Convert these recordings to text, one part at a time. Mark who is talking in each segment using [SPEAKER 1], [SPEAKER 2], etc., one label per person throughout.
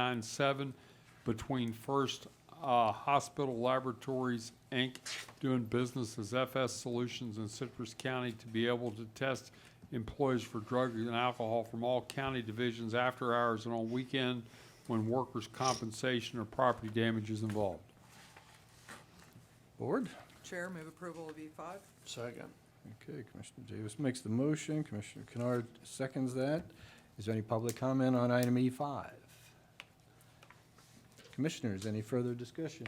[SPEAKER 1] nine seven between First uh, Hospital Laboratories, Inc., doing business as FS Solutions in Citrus County to be able to test employees for drugs and alcohol from all county divisions after hours and on weekend when workers' compensation or property damage is involved.
[SPEAKER 2] Board?
[SPEAKER 3] Chair, move approval of E E5.
[SPEAKER 2] Second. Okay, Commissioner Davis makes the motion, Commissioner Kennard seconds that. Is there any public comment on item E E5? Commissioners, any further discussion?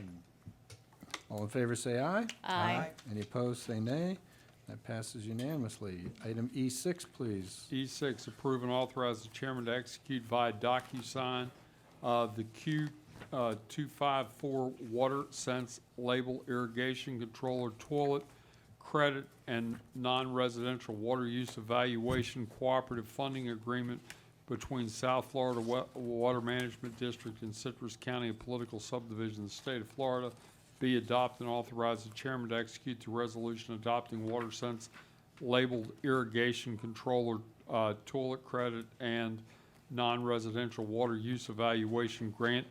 [SPEAKER 2] All in favor, say aye.
[SPEAKER 3] Aye.
[SPEAKER 2] Any opposed, say nay. That passes unanimously. Item E6, please.
[SPEAKER 1] E6, approve and authorize the chairman to execute via DocuSign uh, the uh, Q254 Water Sense Label Irrigation Controller Toilet Credit and Non-Residential Water Use Evaluation Cooperative Funding Agreement between South Florida Wa- Water Management District and Citrus County, a political subdivision of the state of Florida. Be adopted and authorize the chairman to execute the resolution adopting Water Sense labeled irrigation controller, uh, toilet credit, and non-residential water use evaluation grant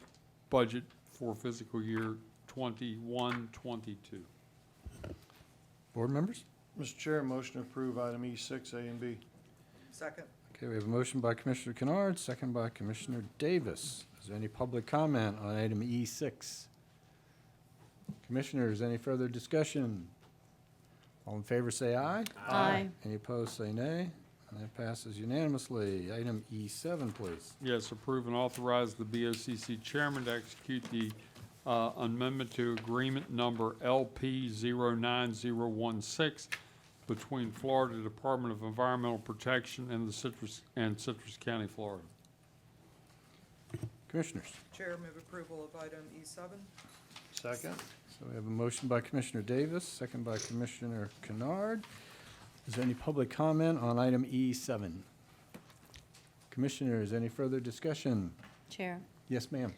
[SPEAKER 1] budget for fiscal year 21-22.
[SPEAKER 2] Board members?
[SPEAKER 4] Mr. Chair, motion to approve item E6A and B.
[SPEAKER 3] Second.
[SPEAKER 2] Okay, we have a motion by Commissioner Kennard, second by Commissioner Davis. Is there any public comment on item E6? Commissioners, any further discussion? All in favor, say aye.
[SPEAKER 5] Aye.
[SPEAKER 2] Any opposed, say nay. And that passes unanimously. Item E7, please.
[SPEAKER 1] Yes, approve and authorize the BOCC chairman to execute the uh, amendment to agreement number LP 09016 between Florida Department of Environmental Protection and the Citrus, and Citrus County, Florida.
[SPEAKER 2] Commissioners.
[SPEAKER 3] Chair, move approval of item E E7.
[SPEAKER 4] Second.
[SPEAKER 2] So we have a motion by Commissioner Davis, second by Commissioner Kennard. Is there any public comment on item E7? Commissioners, any further discussion?
[SPEAKER 5] Chair.
[SPEAKER 2] Yes, ma'am.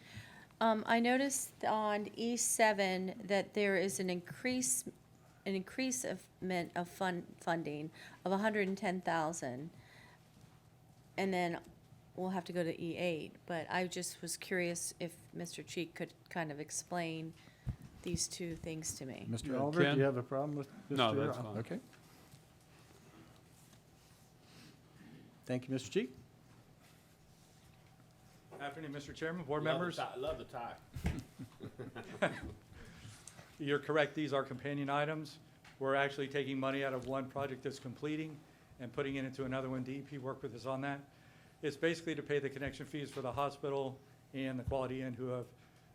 [SPEAKER 5] Um, I noticed on E seven that there is an increase, an increase of, men- of fund, funding of hundred and ten thousand. And then we'll have to go to E eight, but I just was curious if Mr. Cheek could kind of explain these two things to me.
[SPEAKER 2] Mr.
[SPEAKER 1] Yeah,
[SPEAKER 2] Oliver, do
[SPEAKER 1] Ken?
[SPEAKER 2] you have a problem with Mr.?
[SPEAKER 1] No, that's fine.
[SPEAKER 2] Okay. Thank you, Mr. Cheek.
[SPEAKER 6] Afternoon, Mr. Chairman, board members.
[SPEAKER 7] I love the tie.
[SPEAKER 6] You're correct, these are companion items. We're actually taking money out of one project that's completing and putting it into another one. DEP worked with us on that. It's basically to pay the connection fees for the hospital and the Quality Inn who have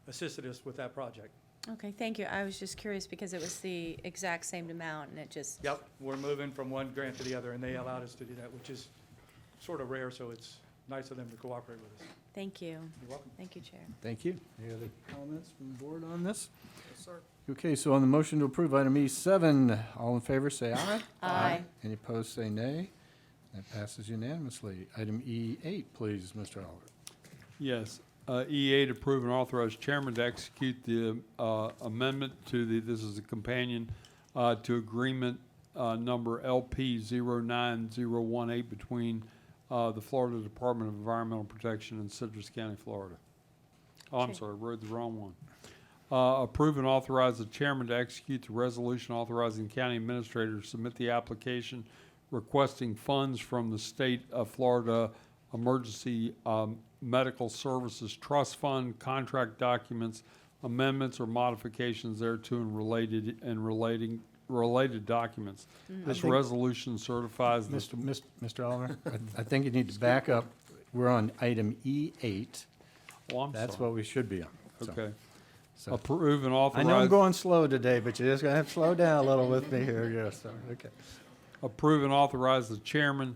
[SPEAKER 6] assisted us with that project.
[SPEAKER 5] Okay, thank you. I was just curious because it was the exact same amount and it just.
[SPEAKER 6] Yep, we're moving from one grant to the other, and they allowed us to do that, which is sort of rare, so it's nice of them to cooperate with us.
[SPEAKER 5] Thank you.
[SPEAKER 6] You're welcome.
[SPEAKER 5] Thank you, Chair.
[SPEAKER 2] Thank you. Any other comments from the board on this?
[SPEAKER 3] Yes, sir.
[SPEAKER 2] Okay, so on the motion to approve item E7, all in favor, say aye.
[SPEAKER 5] Aye.
[SPEAKER 2] Any opposed, say nay. That passes unanimously. Item E8, please, Mr. Oliver.
[SPEAKER 1] Yes. Uh, E8, approve and authorize chairman to execute the uh, amendment to the, this is a companion, uh, to agreement uh, number LP 09018 between uh, the Florida Department of Environmental Protection and Citrus County, Florida. Oh, I'm
[SPEAKER 5] Okay.
[SPEAKER 1] sorry, wrote the wrong one. Uh, Approve and authorize the chairman to execute the resolution authorizing county administrator to submit the application requesting funds from the state of Florida Emergency um, Medical Services Trust Fund, contract documents, amendments or modifications thereto and related, and relating, related documents. This
[SPEAKER 2] think-
[SPEAKER 1] resolution certifies the
[SPEAKER 2] Mr. Mr. Mr. Oliver, I- I think you need to back up. We're on item E8.
[SPEAKER 1] Oh, I'm
[SPEAKER 2] That's
[SPEAKER 1] sorry.
[SPEAKER 2] what we should be on. So-
[SPEAKER 1] Okay.
[SPEAKER 2] so-
[SPEAKER 1] Approve and authorize.
[SPEAKER 2] I know I'm going slow today, but you're just gonna have to slow down a little with me here, yes, sir, okay.
[SPEAKER 1] Approve and authorize the chairman,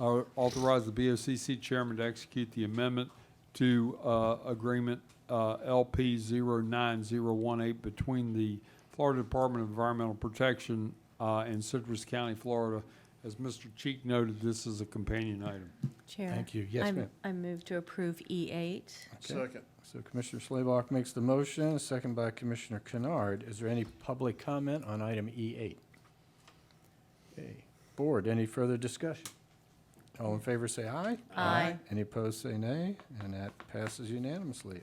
[SPEAKER 1] uh, authorize the BOCC chairman to execute the amendment to uh, agreement uh, LP 09018 between the Florida Department of Environmental Protection uh, and Citrus County, Florida. As Mr. Cheek noted, this is a companion item.
[SPEAKER 5] Chair.
[SPEAKER 2] Thank you. Yes,
[SPEAKER 5] I'm-
[SPEAKER 2] ma'am.
[SPEAKER 5] I move to approve E eight.
[SPEAKER 2] Okay.
[SPEAKER 4] Second.
[SPEAKER 2] So Commissioner Slayback makes the motion, second by Commissioner Kennard. Is there any public comment on E item E8? Okay. Board, any further discussion? All in favor, say aye.
[SPEAKER 5] Aye.
[SPEAKER 2] Any opposed, say nay, and that passes unanimously.